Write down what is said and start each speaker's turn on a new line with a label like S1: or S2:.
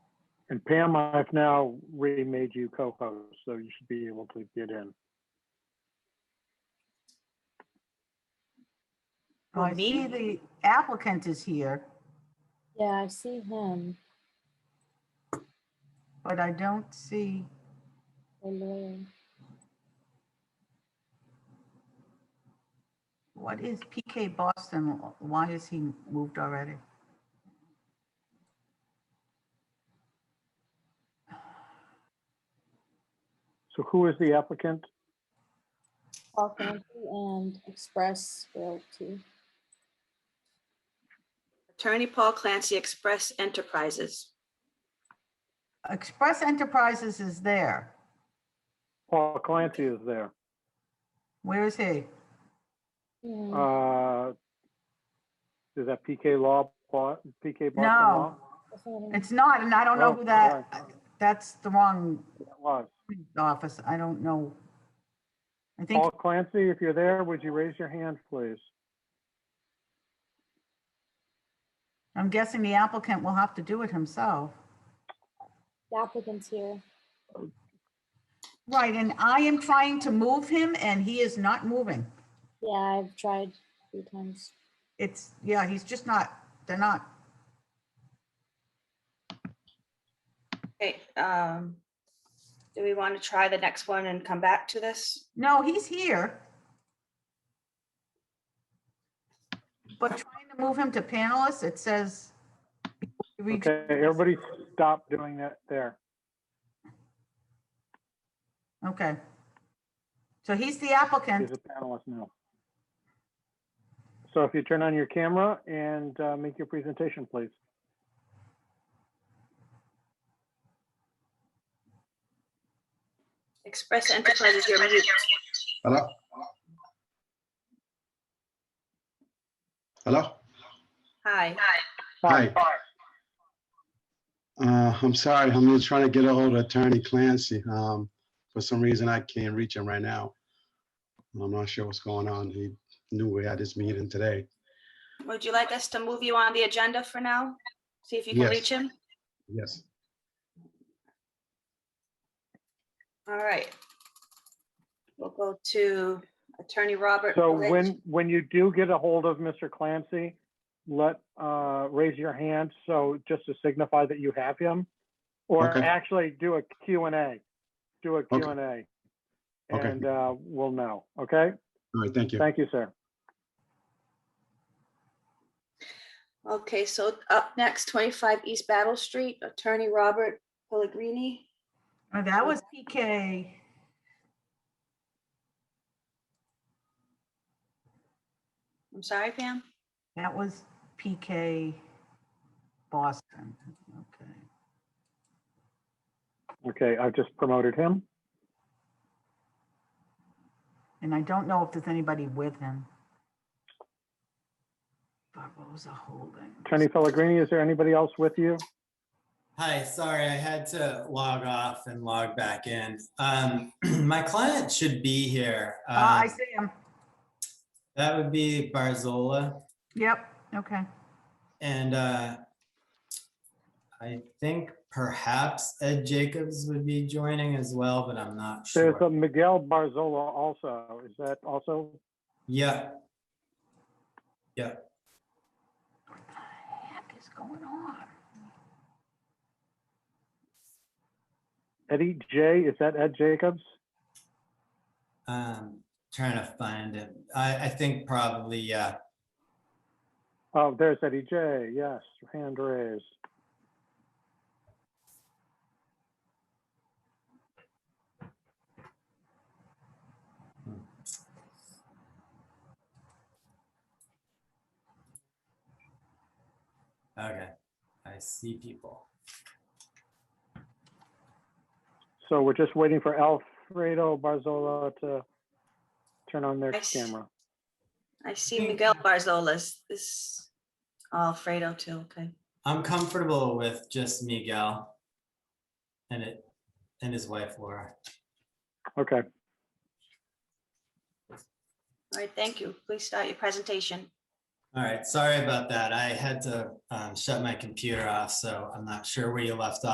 S1: And Pam, I've now remade you co-host, so you should be able to get in.
S2: Well, I see the applicant is here,
S3: Yeah, I see him.
S2: but I don't see,
S3: the lawyer.
S2: what is PK Boston? Why is he moved already?
S1: So who is the applicant?
S3: Paul Fancy and Express Realty.
S4: Attorney Paul Clancy Express Enterprises.
S2: Express Enterprises is there.
S1: Paul Clancy is there.
S2: Where is he?
S3: Yeah,
S2: Mm.
S1: Uh, Is that PK Law, Paul- PK Boston Law?
S2: No,
S3: that's not him.
S2: it's not, and I don't know
S1: Oh,
S2: who that, that's the wrong
S1: It was.
S2: office. I don't know. I think,
S1: Paul Clancy, if you're there, would you raise your hand, please?
S2: I'm guessing the applicant will have to do it himself.
S3: The applicant's here.
S2: Right, and I am trying to move him and he is not moving.
S3: Yeah, I've tried a few times.
S2: It's, yeah, he's just not, they're not,
S4: Okay, um, do we want to try the next one and come back to this?
S2: no, he's here. But trying to move him to panelists, it says.
S1: Okay, everybody stop doing that there.
S2: Okay. So he's the applicant.
S1: He's a panelist now. So if you turn on your camera and uh, make your presentation, please.
S4: Express Enterprises, you're muted.
S5: Hello? Hello?
S4: Hi,
S5: Hi. Uh, I'm sorry, I'm just trying to get a hold of Attorney Clancy. Um, for some reason, I can't reach him right now. I'm not sure what's going on. He knew we had this meeting today.
S4: would you like us to move you on the agenda for now? See if you can
S5: Yes.
S4: reach him?
S5: Yes.
S4: All right. We'll go to Attorney Robert.
S1: So
S4: Blitz.
S1: when, when you do get a hold of Mr. Clancy, let, uh, raise your hand, so just to signify that you have him. Or
S5: Okay.
S1: actually do a Q and A, do a Q
S5: Okay.
S1: and A.
S5: Okay.
S1: And, uh, we'll know, okay?
S5: All right, thank you.
S1: Thank you, sir.
S4: Okay, so up next, 25 East Battle Street, Attorney Robert Pellegrini.
S2: Oh, That was PK.
S4: I'm sorry, Pam.
S2: That was PK Boston. Okay.
S1: Okay, I've just promoted him.
S2: And I don't know if there's anybody with him. Barbosa Holdings.
S1: Attorney Pellegrini, is there anybody else with you?
S6: Hi, sorry, I had to log off and log back in. Um, my client should be here.
S2: Ah, I
S6: Uh,
S2: see him.
S6: that would be Barzola.
S2: Yep, okay.
S6: And uh, I think perhaps Ed Jacobs would be joining as well, but I'm not
S1: There's a
S6: sure.
S1: Miguel Barzola also. Is that also?
S6: Yeah,
S2: What the heck is going on?
S1: Eddie J, is that Ed Jacobs?
S6: um, trying to find it. I, I think probably, yeah.
S1: Oh, there's Eddie J, yes, hand raised.
S6: Okay, I see people.
S1: So we're just waiting for Alfredo Barzola to turn on their
S4: I s-
S1: camera.
S4: I see
S1: Hmm.
S6: Thank
S4: Miguel
S6: you.
S4: Barzola's, this, Alfredo too, okay.
S6: I'm comfortable with just Miguel and it, and his wife Laura.
S1: Okay,
S4: All right, thank you. Please start your presentation.
S6: All right, sorry about that. I had to um, shut my computer off, so I'm not sure where you left off.